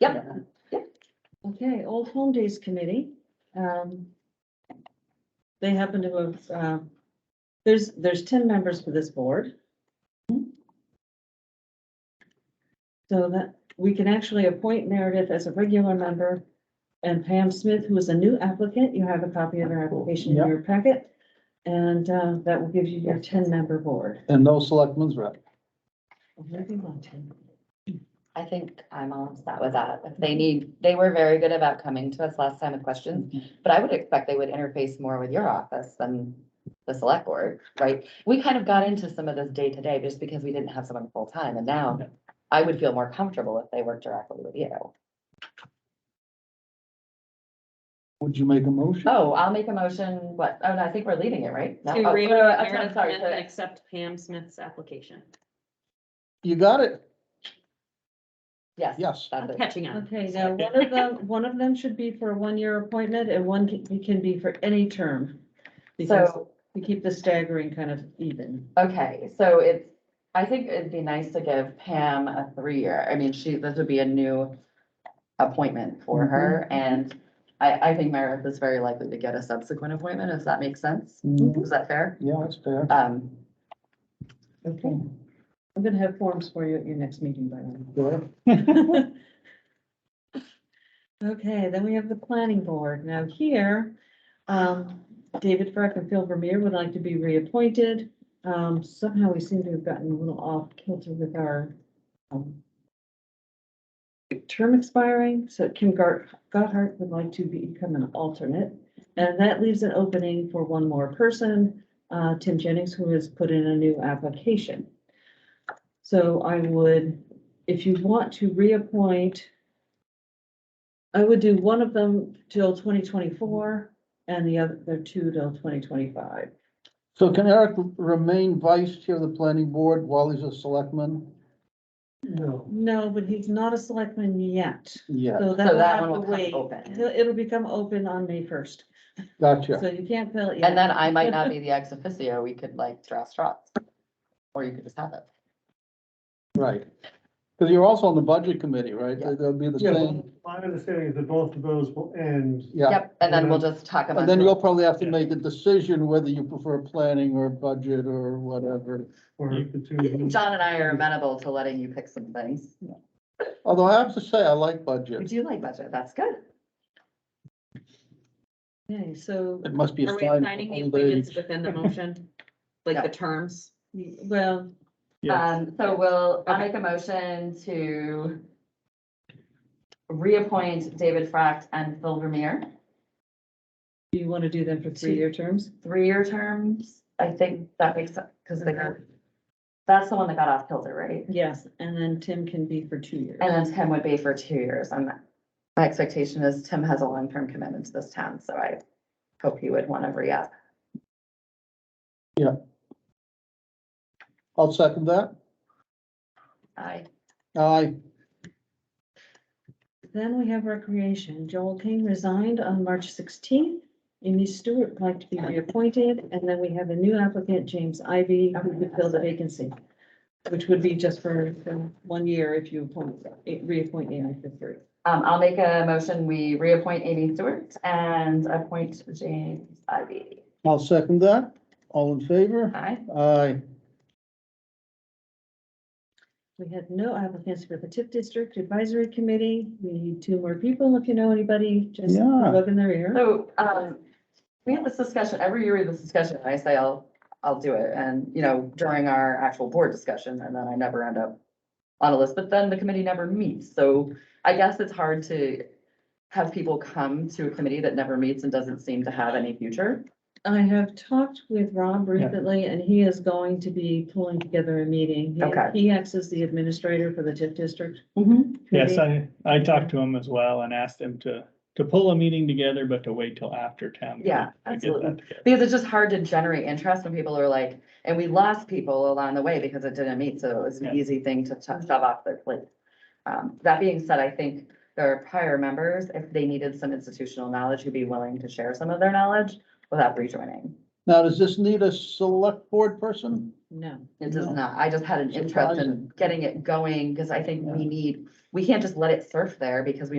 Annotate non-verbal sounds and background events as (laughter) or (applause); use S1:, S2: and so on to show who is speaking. S1: Yep.
S2: Okay, Old Home Days Committee, um. They happen to have, uh, there's, there's ten members for this board. So that, we can actually appoint Meredith as a regular member and Pam Smith, who is a new applicant, you have a copy of her application in your packet. And, uh, that will give you your ten-member board.
S3: And no selectmen's rep.
S1: I think I'm all set with that. If they need, they were very good about coming to us last time with questions, but I would expect they would interface more with your office than the select board, right? We kind of got into some of this day to day just because we didn't have someone full time and now I would feel more comfortable if they worked directly with you.
S3: Would you make a motion?
S1: Oh, I'll make a motion, what, oh, no, I think we're leaving it, right? No,
S4: To
S1: oh,
S4: read
S1: no, I'm
S4: Meredith
S1: sorry,
S4: Smith
S1: to-
S4: and accept Pam Smith's application.
S3: You got it?
S1: Yes,
S3: Yes.
S1: that's
S4: I'm
S1: it.
S4: catching up.
S2: Okay, now, one of them, one of them should be for a one-year appointment and one can, can be for any term. Because
S1: So
S2: We keep the staggering kind of even.
S1: Okay, so it's, I think it'd be nice to give Pam a three-year, I mean, she, this would be a new appointment for
S3: Mm-hmm.
S1: her, and I, I think Meredith is very likely to get a subsequent appointment, if that makes sense.
S3: Mhm.
S1: Is that fair?
S3: Yeah, that's fair.
S1: Um,
S2: Okay. I'm gonna have forms for you at your next meeting, by the
S3: Sure.
S2: way. (laughs) Okay, then we have the planning board. Now here, um, David Frick and Phil Vermeer would like to be reappointed. Um, somehow we seem to have gotten a little off kilter with our, um, term expiring, so Kim Gart, Gotthard would like to become an alternate. And that leaves an opening for one more person, uh, Tim Jennings, who has put in a new application. So I would, if you want to reappoint, I would do one of them till twenty twenty-four and the other two till twenty twenty-five.
S3: So can Eric remain vice chair of the planning board while he's a selectman? No.
S2: No, but he's not a selectman yet,
S3: Yeah,
S2: so
S1: So
S2: that will
S1: that one
S2: have
S1: will
S2: to
S1: come
S2: wait.
S1: open.
S2: It'll- It'll become open on May first,
S3: gotcha.
S2: so you can't fill it yet.
S1: and then I might not be the ex officio, we could like draw straws, or you could just have it.
S3: Right. Because you're also on the budget committee, right?
S1: Yeah.
S3: That'll be the
S5: Yeah,
S3: same.
S5: my understanding is that both of those will end.
S3: Yeah.
S1: Yep, and then we'll just talk about.
S3: And then you'll probably have to make a decision whether you prefer planning or budget or whatever.
S5: Or the two. of them.
S1: John and I are amenable to letting you pick some things.
S3: Although I have to say, I like
S1: We
S3: budget.
S1: do like budget, that's good.
S2: Okay, so,
S3: It must be
S4: Are
S3: a
S4: we
S3: sign
S4: assigning the
S3: of old
S4: appointments
S3: age.
S4: within the motion? Like the terms?
S2: well,
S1: Um, so we'll, I'll make a motion to reappoint David Fract and Phil Vermeer,
S2: you want to do them for three-year terms?
S1: three-year terms. I think that makes sense, because they got, that's the one that got off kilter, right?
S2: Yes, and then Tim can be for two years.
S1: And then Tim would be for two years. And my expectation is Tim has a long-term commitment to this town, so I hope he would want to re-up.
S3: I'll second that.
S1: I,
S3: Aye.
S2: Then we have recreation. Joel King resigned on March sixteenth. Amy Stewart would like to be reappointed, and then we have a new applicant, James Ivy, who would fill the vacancy. Which would be just for for one year if you appoint, reappoint Amy for three.
S1: um, I'll make a motion, we reappoint Amy Stewart and appoint James Ivy.
S3: I'll second that. All in favor?
S1: Aye.
S3: Aye.
S2: We had no applicants for the TIF District Advisory Committee. We need two more people. If you know anybody, just
S3: Yeah.
S2: plug in their ear.
S1: So, um, we have this discussion, every year we have this discussion, and I say I'll, I'll do it, and, you know, during our actual board discussion, and then I never end up on a list, but then the committee never meets, so I guess it's hard to have people come to a committee that never meets and doesn't seem to have any future.
S2: I have talked with Rob recently, and he is going to be pulling together a meeting. He-
S1: Okay.
S2: He acts as the administrator for the TIF District.
S6: Yes,
S2: committee.
S6: I, I talked to him as well and asked him to, to pull a meeting together, but to wait till after town. meeting
S1: Yeah,
S6: to get
S1: absolutely.
S6: that together.
S1: Because it's just hard to generate interest when people are like, and we lost people along the way because it didn't meet, so it was
S6: Yeah.
S1: an easy thing to cho- shove off their plate. Um, that being said, I think there are prior members, if they needed some institutional knowledge, who'd be willing to share some of their knowledge without rejoining.
S3: Now, does this need a select board person?
S2: No.
S1: It does not. I just had an interest in
S3: Surprising.
S1: getting it going because I think we need, we can't just let it surf there because we